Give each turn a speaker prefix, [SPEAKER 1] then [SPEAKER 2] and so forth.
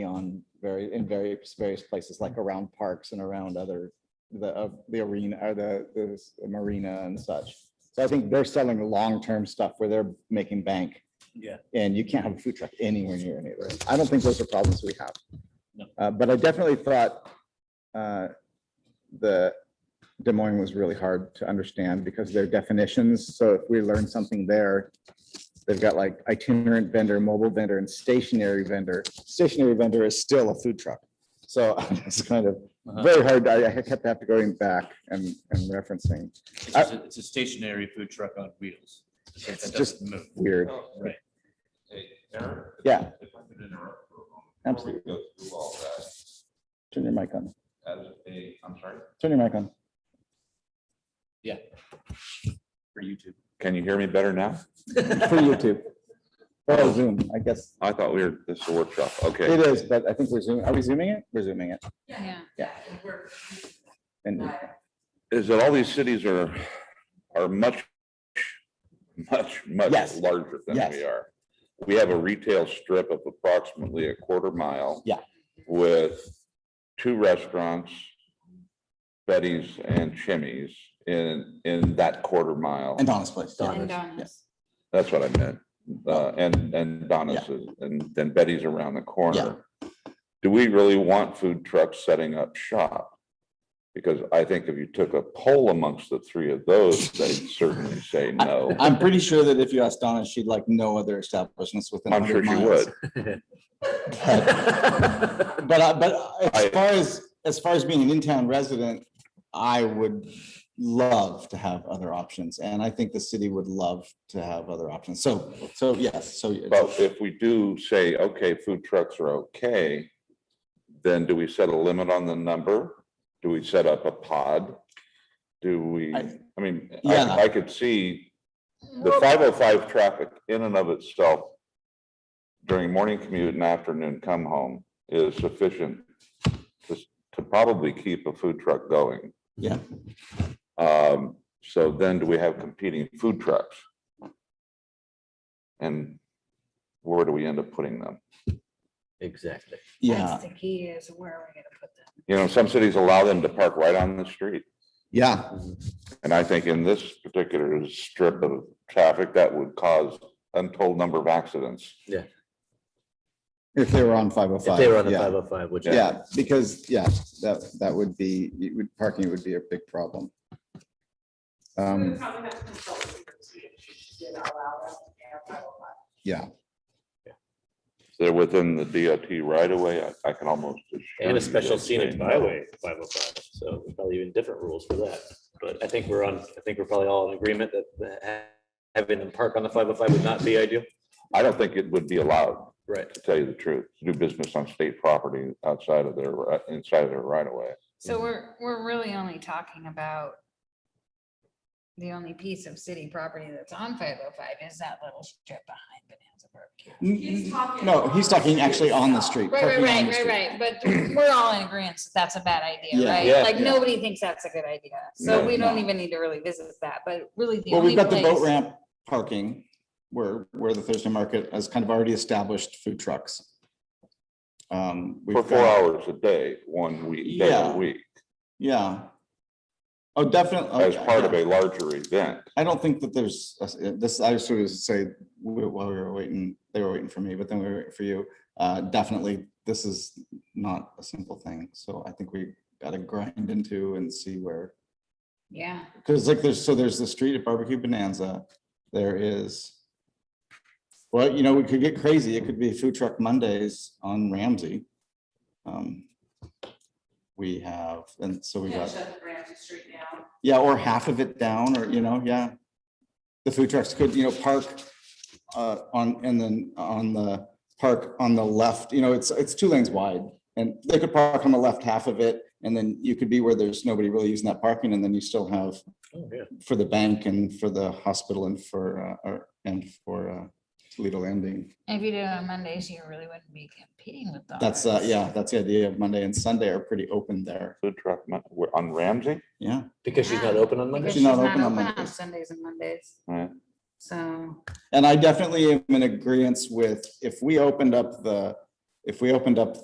[SPEAKER 1] on very, in various, various places, like around parks and around other, the, uh, the arena, or the, the marina and such. So I think they're selling long-term stuff where they're making bank.
[SPEAKER 2] Yeah.
[SPEAKER 1] And you can't have a food truck anywhere near any of those. I don't think those are problems we have.
[SPEAKER 2] No.
[SPEAKER 1] Uh, but I definitely thought, uh, the Des Moines was really hard to understand because their definitions, so if we learn something there, They've got like itinerant vendor, mobile vendor and stationary vendor. Stationary vendor is still a food truck. So it's kind of
[SPEAKER 2] Uh-huh.
[SPEAKER 1] very hard. I I kept having to going back and, and referencing.
[SPEAKER 2] It's just a- it's a stationary food truck on wheels.
[SPEAKER 1] It's
[SPEAKER 2] It
[SPEAKER 1] just
[SPEAKER 2] doesn't move.
[SPEAKER 1] weird.
[SPEAKER 2] Right.
[SPEAKER 3] Hey, Aaron? if-
[SPEAKER 1] Yeah.
[SPEAKER 3] If I could interrupt for a moment.
[SPEAKER 1] Absolutely.
[SPEAKER 3] Before we Go through all that,
[SPEAKER 1] Turn your mic on.
[SPEAKER 3] as a, I'm sorry?
[SPEAKER 1] Turn your mic on.
[SPEAKER 2] For YouTube.
[SPEAKER 4] Can you hear me better now?
[SPEAKER 1] For YouTube. Or Zoom, I guess.
[SPEAKER 4] I thought we were, this is a workshop. Okay.
[SPEAKER 1] It is, but I think we're zooming. Are we zooming it? We're zooming it.
[SPEAKER 5] Yeah.
[SPEAKER 1] And
[SPEAKER 4] Is that all these cities are, are much, much, much
[SPEAKER 1] Yes.
[SPEAKER 4] larger than
[SPEAKER 1] Yes.
[SPEAKER 4] we are. We have a retail strip of approximately a quarter mile.
[SPEAKER 1] Yeah.
[SPEAKER 4] With two restaurants, Betty's and Chimmy's in, in that quarter mile.
[SPEAKER 1] and Donna's place.
[SPEAKER 5] And
[SPEAKER 1] Yes.
[SPEAKER 5] donuts.
[SPEAKER 4] That's what I meant. Uh, and, and Donna's is- and then Betty's around the corner. Do we really want food trucks setting up shop? Because I think if you took a poll amongst the three of those, they'd certainly say no.
[SPEAKER 1] I'm pretty sure that if you asked Donna, she'd like no other establishments within.
[SPEAKER 4] I'm sure
[SPEAKER 1] 100
[SPEAKER 4] she
[SPEAKER 1] miles.
[SPEAKER 4] would.
[SPEAKER 1] uh, But, I- but as
[SPEAKER 4] I-
[SPEAKER 1] far as, as far as being an in-town resident, I would love to have other options, and I think the city would love to have other options. So, so yes, so
[SPEAKER 4] But if we do say, okay, food trucks are okay, then do we set a limit on the number? Do we set up a pod? Do we,
[SPEAKER 1] I-
[SPEAKER 4] I mean,
[SPEAKER 1] Yeah.
[SPEAKER 4] I, I could see the five oh five traffic in and of itself during morning commute and afternoon come home is sufficient to, to probably keep a food truck going.
[SPEAKER 1] Yeah.
[SPEAKER 4] Um, so then do we have competing food trucks? And where do we end up putting them?
[SPEAKER 2] Exactly.
[SPEAKER 1] yeah,
[SPEAKER 5] the key is where are we gonna put them?
[SPEAKER 4] You know, some cities allow them to park right on the street.
[SPEAKER 1] yeah,
[SPEAKER 4] And I think in this particular strip of traffic, that would cause untold number of accidents.
[SPEAKER 1] if they were on five oh five.
[SPEAKER 6] If they were on the five oh five, which. I-
[SPEAKER 1] Yeah, because, yeah, that, that would be, it would, parking would be a big problem. Um, yeah,
[SPEAKER 4] They're within the DOT right away. I, I can almost. assure
[SPEAKER 6] And
[SPEAKER 4] you
[SPEAKER 6] a special
[SPEAKER 4] they'd say
[SPEAKER 6] scenic
[SPEAKER 4] no.
[SPEAKER 6] byway, five oh five, so there's probably even different rules for that. But I think we're on, I think we're probably all in agreement that- that ha- having them park on the five oh five would not be ideal.
[SPEAKER 4] I don't think it would be allowed,
[SPEAKER 6] Right.
[SPEAKER 4] to tell you the truth, to do business on state property outside of their, ri- inside of their right of way.
[SPEAKER 5] So we're, we're really only talking about the only piece of city property that's on five oh five is that little strip behind Bonanza Barbecue.
[SPEAKER 1] N- n- no, he's talking actually on the street.
[SPEAKER 5] Right,
[SPEAKER 1] parking on
[SPEAKER 5] right, right,
[SPEAKER 1] the
[SPEAKER 5] right,
[SPEAKER 1] street.
[SPEAKER 5] right, but we're all in agreement, that's a bad idea,
[SPEAKER 1] Yeah.
[SPEAKER 4] Yeah.
[SPEAKER 5] right? Like,
[SPEAKER 1] Yeah.
[SPEAKER 5] nobody thinks that's a good idea,
[SPEAKER 4] No,
[SPEAKER 5] so we don't
[SPEAKER 1] no.
[SPEAKER 5] even need to really visit that, but really the
[SPEAKER 1] Well,
[SPEAKER 5] only
[SPEAKER 1] we've got the
[SPEAKER 5] place.
[SPEAKER 1] boat ramp parking where, where the Thursday market has kind of already established food trucks. Um, we've
[SPEAKER 4] For four
[SPEAKER 1] got-
[SPEAKER 4] hours a day, one week, day
[SPEAKER 1] Yeah.
[SPEAKER 4] a week,
[SPEAKER 1] Yeah. Oh, definitely.
[SPEAKER 4] as part of a larger event.
[SPEAKER 1] I don't think that there's, this, I was sort of say, wh- while we were waiting, they were waiting for me, but then we were waiting for you. Uh, definitely, this is not a simple thing. So I think we gotta grind into and see where,
[SPEAKER 5] Yeah,
[SPEAKER 1] because like there's, so there's the street at Barbecue Bonanza. There is. Well, you know, we could get crazy. It could be Food Truck Mondays on Ramsey. Um, We have, and so we got. Yeah, or half of it down, or, you know, yeah. The food trucks could, you know, park uh, on, and then on the park on the left, you know, it's, it's two lanes wide. And they could park on the left half of it, and then you could be where there's nobody really using that parking, and then you still have
[SPEAKER 6] Oh, yeah.
[SPEAKER 1] for the bank and for the hospital and for, uh, or- and for uh, Toledo Landing.
[SPEAKER 5] if you did it on Mondays, you really wouldn't be competing with.
[SPEAKER 1] That's, uh,
[SPEAKER 5] donuts.
[SPEAKER 1] yeah, that's the idea of Monday and Sunday are pretty open there.
[SPEAKER 4] Food truck, mon- we're on Ramsey?
[SPEAKER 1] Yeah,
[SPEAKER 6] Because she's not open on
[SPEAKER 5] Because
[SPEAKER 6] Monday?
[SPEAKER 1] She's
[SPEAKER 5] she's
[SPEAKER 1] not
[SPEAKER 5] not
[SPEAKER 1] open on
[SPEAKER 5] open on
[SPEAKER 1] Mondays.
[SPEAKER 5] Sundays and Mondays.
[SPEAKER 4] Right.
[SPEAKER 5] So,
[SPEAKER 1] and I definitely am in agreement with, if we opened up the, if we opened up